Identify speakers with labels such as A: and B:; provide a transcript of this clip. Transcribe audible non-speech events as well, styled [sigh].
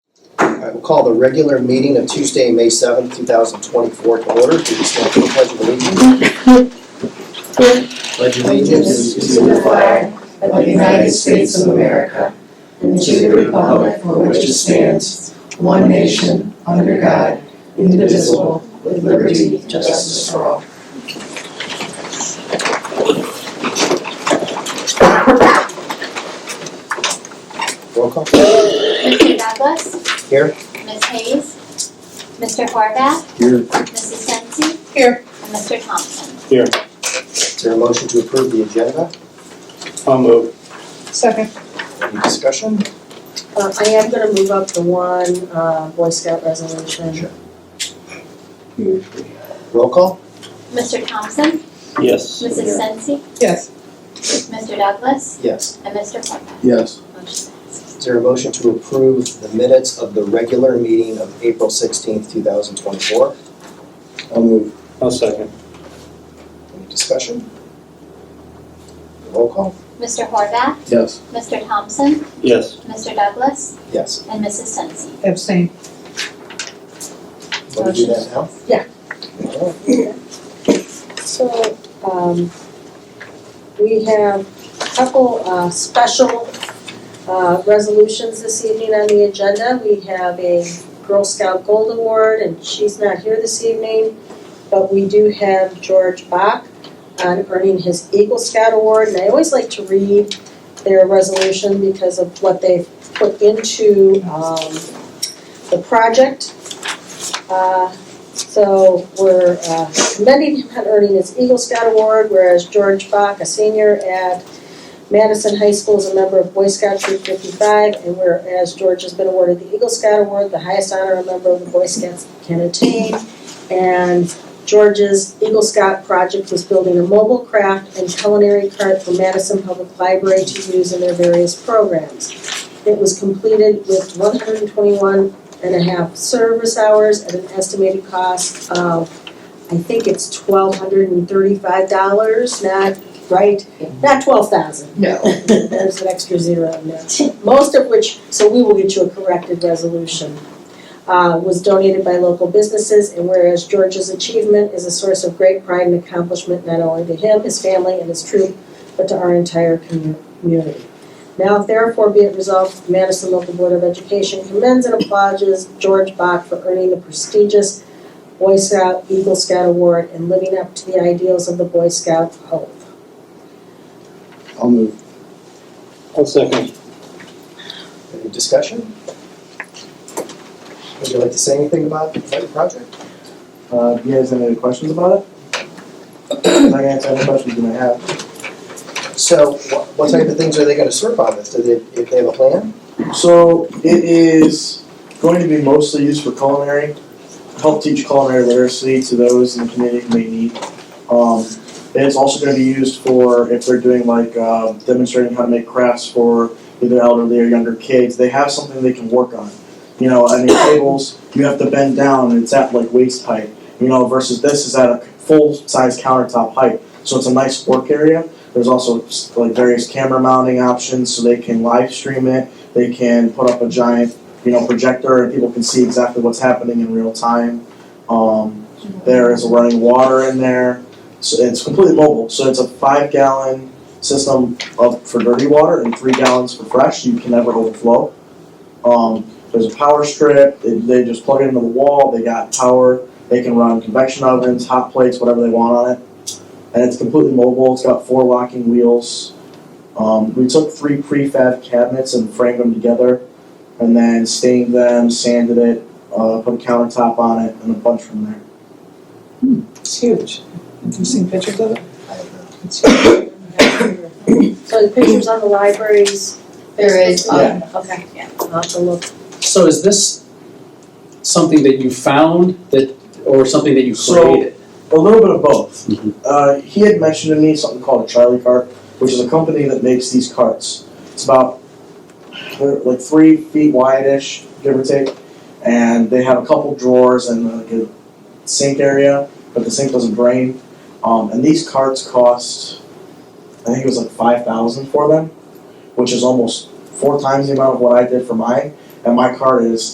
A: I will call the regular meeting of Tuesday, May seventh, two thousand twenty-four to order. Please stand for the pledge of allegiance. Pledge of
B: allegiance to the flag of the United States of America and to the republic for which it stands, one nation, under God, indivisible, with liberty and justice for all.
A: Roll call.
C: Mr. Douglas?
A: Here.
C: Ms. Hayes? Mr. Horvath?
A: Here.
C: Mrs. Sensi?
D: Here.
C: And Mr. Thompson?
A: Is there a motion to approve the agenda?
E: I'll move.
D: Second.
A: Any discussion?
F: Uh, I am gonna move up the one, uh, Boy Scout resolution.
A: Roll call.
C: Mr. Thompson?
E: Yes.
C: Mrs. Sensi?
D: Yes.
C: Mr. Douglas?
A: Yes.
C: And Mr. Horvath?
E: Yes.
C: Motion passes.
A: Is there a motion to approve the minutes of the regular meeting of April sixteenth, two thousand twenty-four?
E: I'll move. I'll second.
A: Any discussion? Roll call.
C: Mr. Horvath?
E: Yes.
C: Mr. Thompson?
E: Yes.
C: Mr. Douglas?
A: Yes.
C: And Mrs. Sensi?
D: Abstain.
A: Want to do that now?
F: Yeah.
A: Okay.
F: So, um, we have a couple, uh, special, uh, resolutions this evening on the agenda. We have a Girl Scout Gold Award, and she's not here this evening, but we do have George Bach on earning his Eagle Scout Award, and I always like to read their resolution because of what they've put into, um, the project. Uh, so we're uh, commending him on earning his Eagle Scout Award, whereas George Bach, a senior at Madison High School, is a member of Boy Scout Troop 55, and whereas George has been awarded the Eagle Scout Award, the highest honor a member of the Boy Scouts can attain. And George's Eagle Scout project was building a mobile craft and culinary cart for Madison Public Library to use in their various programs. It was completed with 121 and a half service hours at an estimated cost of, I think it's twelve hundred and thirty-five dollars, not, right? Not twelve thousand,
D: No.
F: there's an extra zero in there. Most of which, so we will get you a corrected resolution. Uh, was donated by local businesses, and whereas George's achievement is a source of great pride and accomplishment not only to him, his family, and his troop, but to our entire commu- community. Now therefore be it resolved, the Madison Local Board of Education commends and applauds George Bach for earning the prestigious Boy Scout Eagle Scout Award and living up to the ideals of the Boy Scout oath.
E: I'll move. I'll second.
A: Any discussion? Would you like to say anything about the project?
G: Uh, do you guys have any questions about it? I can answer any questions you may have.
A: So what, what type of things are they gonna serve on this? Do they, if they have a plan?
G: So it is going to be mostly used for culinary, help teach culinary literacy to those in the community who may need. Um, and it's also gonna be used for if they're doing like, uh, demonstrating how to make crafts for either elderly or younger kids, they have something they can work on. You know, I mean, tables, you have to bend down and it's at like waist height, you know, versus this is at a full-size countertop height. So it's a nice work area. There's also like various camera mounting options, so they can live stream it. They can put up a giant, you know, projector and people can see exactly what's happening in real time. Um, there is running water in there. So it's completely mobile. So it's a five gallon system of for dirty water and three gallons for fresh. You can never overflow. Um, there's a power strip. They, they just plug it into the wall. They got power. They can run convection ovens, hot plates, whatever they want on it. And it's completely mobile. It's got four locking wheels. Um, we took three prefab cabinets and framed them together, and then stained them, sanded it, uh, put a countertop on it, and a bunch from there.
D: It's huge. You've seen pictures of it?
A: I don't know.
D: It's huge.
F: [coughs] So the pictures on the libraries.
B: There is,
F: Yeah, okay, yeah, I'll have to look.
H: So is this something that you found that, or something that you
G: So-
H: created? Mm-hmm.
G: A little bit of both. Uh, he had mentioned to me something called a Charlie cart, which is a company that makes these carts. It's about they're like three feet wide-ish, give or take, and they have a couple drawers and uh, like a sink area, but the sink doesn't drain. Um, and these carts cost, I think it was like five thousand for them, which is almost four times the amount of what I did for mine. And my cart is